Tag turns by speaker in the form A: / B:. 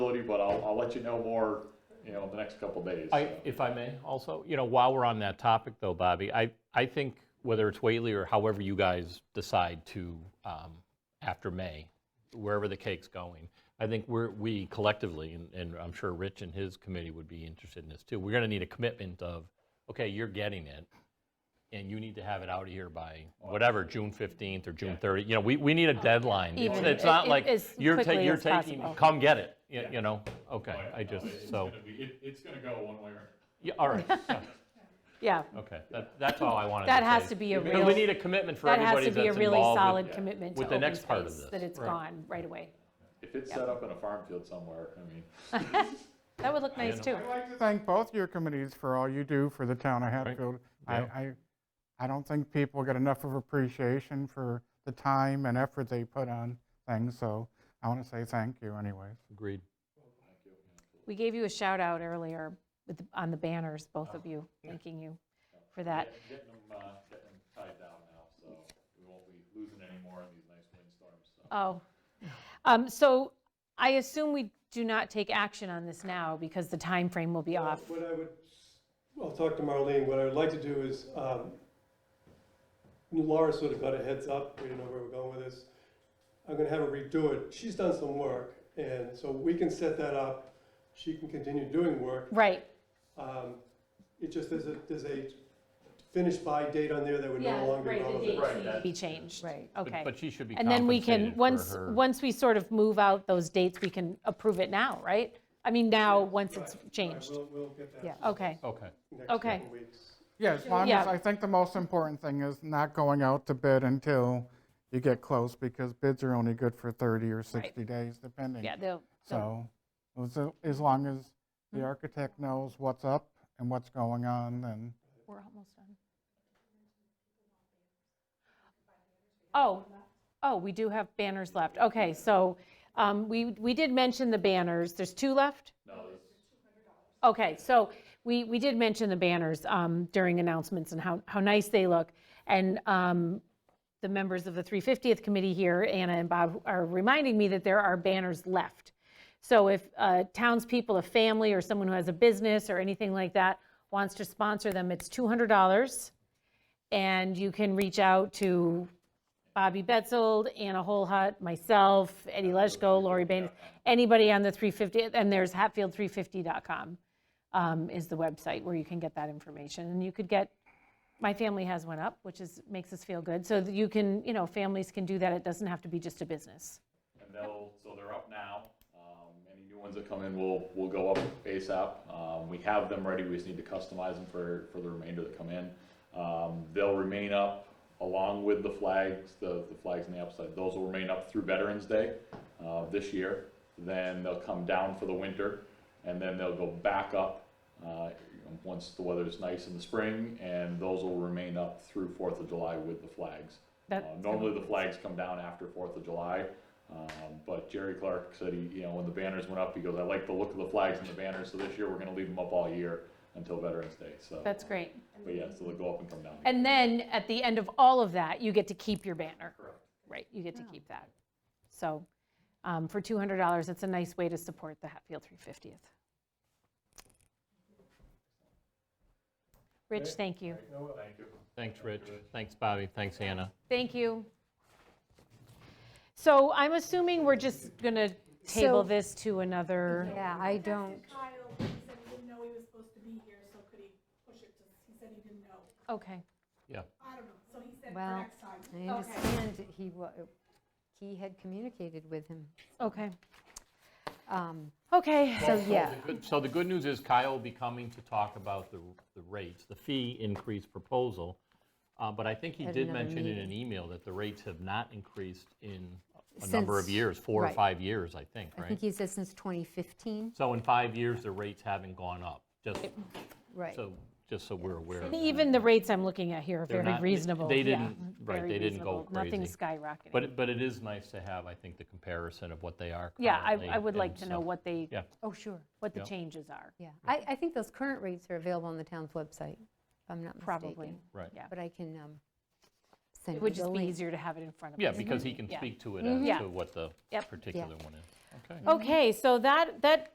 A: possibility, but I'll, I'll let you know more, you know, the next couple days.
B: I, if I may, also, you know, while we're on that topic though, Bobby, I, I think whether it's Whately or however you guys decide to, um, after May, wherever the cake's going, I think we're, we collectively, and, and I'm sure Rich and his committee would be interested in this too, we're gonna need a commitment of, okay, you're getting it, and you need to have it out of here by whatever, June 15th or June 30th, you know, we, we need a deadline. It's-
C: Uh, Even
B: It's not
C: i-
B: like,
C: as
B: you're
C: quickly
B: taking, you're
C: as
B: taking,
C: possible.
B: come get it, you you know, okay,
A: Oh, Yeah, no,
B: I just,
A: it's
B: so,
A: gonna be- it- It's gonna go one way or.
B: yeah, all right, yeah.
C: Yeah,
B: Okay, that, that's all I wanted to say.
C: That has to be a
B: Because
C: real-
B: we need a commitment for
C: that
B: everybody
C: has
B: that's
C: to
B: involved.
C: be a really
B: with-
C: solid commitment to
B: with the
C: open
B: next part of
C: space,
B: this,
C: that it's
B: right.
C: gone right away.
A: If it's set up in a farm field somewhere, I mean,
C: That would look nice
B: know.
C: too.
D: I'd like to thank both your committees for all you do for the town of Hatfield. I,
B: Yeah.
D: I, I don't think people get enough of appreciation for the time and effort they put on things, so I want to say thank you anyways.
B: Agreed.
C: We gave you a shout out earlier with, the- on the banners, both of you, thanking you for that.
A: get- getting them, uh, getting them tied down now, so we won't be losing any more in these nice windstorms, so.
C: Oh. Um, So I assume we do not take action on this now because the time frame will be
E: Well,
C: off.
E: What I would, I'll talk to Marlene, what I would like to do is, um, Laura sort of got a heads up, we didn't know where we were going with this. I'm gonna have her redo it, she's done some work, and so we can set that up, she can continue doing work.
C: Right,
E: Um, It just, there's a, there's a finish by date on there that would
C: yeah,
E: no longer be
C: right, the
E: relevant.
C: dates need to
A: that's-
C: be changed. Right. Okay.
B: But she should be
C: And then we can,
B: compensated for
C: once,
B: her-
C: once we sort of move out those dates, we can approve it now, right? I mean, now, once it's
E: Right, right,
C: changed.
E: We'll, we'll get that.
F: Yeah.
C: Okay,
B: Okay,
E: next
C: Okay.
E: couple weeks.
D: Yeah, as long
C: Yeah.
D: as, I think the most important thing is not going out to bid until you get close, because bids are only good for 30 or 60 days, depending.
C: yeah, they'll, they'll-
D: So, as- as long as
C: Hmm.
D: the architect knows what's up and what's going on, then
C: we're almost done. Oh, oh, we do have banners left. Okay, so um, we, we did mention the banners. There's two left? No. Okay, so we, we did mention the banners um, during announcements and how, how nice they look. And um, the members of the 350th committee here, Anna and Bob, are reminding me that there are banners left. So if uh, townspeople, a family, or someone who has a business or anything like that wants to sponsor them, it's $200. And you can reach out to Bobby Betzold, Anna Holhut, myself, Eddie Leschko, Lori Bain, anybody on the 350, and there's hatfield350.com um, is the website where you can get that information. And you could get my family has one up, which is, makes us feel good. So that you can, you know, families can do that. It doesn't have to be just a business.
A: And they'll, so they're up now. Um, Any new ones that come in will, will go up ASAP. Um, We have them ready, we just need to customize them for, for the remainder that come in. Um, They'll remain up along with the flags, the, the flags on the upside. Those will remain up through Veterans Day uh, this year. Then they'll come down for the winter, and then they'll go back up uh, once the weather's nice in the spring, and those will remain up through Fourth of July with the flags.
C: That-
A: Uh, Normally, the flags come down after Fourth of July, um, but Jerry Clark said, he, you know, when the banners went up, he goes, I like the look of the flags and the banners, so this year, we're gonna leave them up all year until Veterans Day, so.
C: That's great.
A: But yeah, so they'll go up and come down. again.
C: And then at the end of all of that, you get to keep your banner.
A: Correct.
C: Right, you get to keep that. So um, for $200, it's a nice way to support the Hatfield 350th. Rich, thank you.
B: thanks, Rich, thanks, Bobby, thanks, Anna.
C: Thank you. So I'm assuming we're just going to table
F: So-
C: this to another.
F: Yeah, I don't,
G: Kyle, he said he didn't know he was supposed to be here, so could he push it to, he said he didn't know.
C: Okay,
B: Yeah,
G: I don't know, so he said for
F: Well,
G: next time.
F: I understand that he wa, he had communicated with him.
C: okay,
F: Um,
C: okay.
F: So, yeah,
B: Good- So the good news is Kyle will be coming to talk about the, the rates, the fee increase proposal. Uh, But I think he
F: At
B: did
F: another
B: mention in an
F: meeting.
B: email that the rates have not increased in a number of
F: Since-
B: years, four or
F: right.
B: five years, I think,
F: I
B: right?
F: think he said since 2015,
B: So in five years, the rates haven't gone up, just
F: right.
B: so, just so we're aware of
C: And
B: that.
C: Even the rates I'm looking at here are
B: uh, They're
C: very
B: not-
C: reasonable.
B: they
C: yeah,
B: didn't- right,
C: very
B: they didn't go
C: reasonable. Nothing
B: crazy.
C: skyrocketing.
B: But, it- but it is nice to have, I think, the comparison of what they are
C: Yeah, I,
B: currently
C: I would like
B: and
C: to know
B: stuff.
C: what they,
B: Yeah,
F: Oh, sure,
C: what the
B: Yeah.
C: changes are,
F: yeah. I, I think those current rates are available on the town's website, if I'm not mistaken.
C: probably.
B: right.
C: Yeah.
F: But I can um, send
C: It
F: you
C: would
F: the
C: just be
F: link.
C: easier to have it in front of us.
F: Mhm.
B: Yeah, because he can
C: Mm-hmm. Yeah.
B: speak to it as
C: Yeah.
B: to what the
C: Yep.
B: particular one is. Okay.
C: Okay, so that, that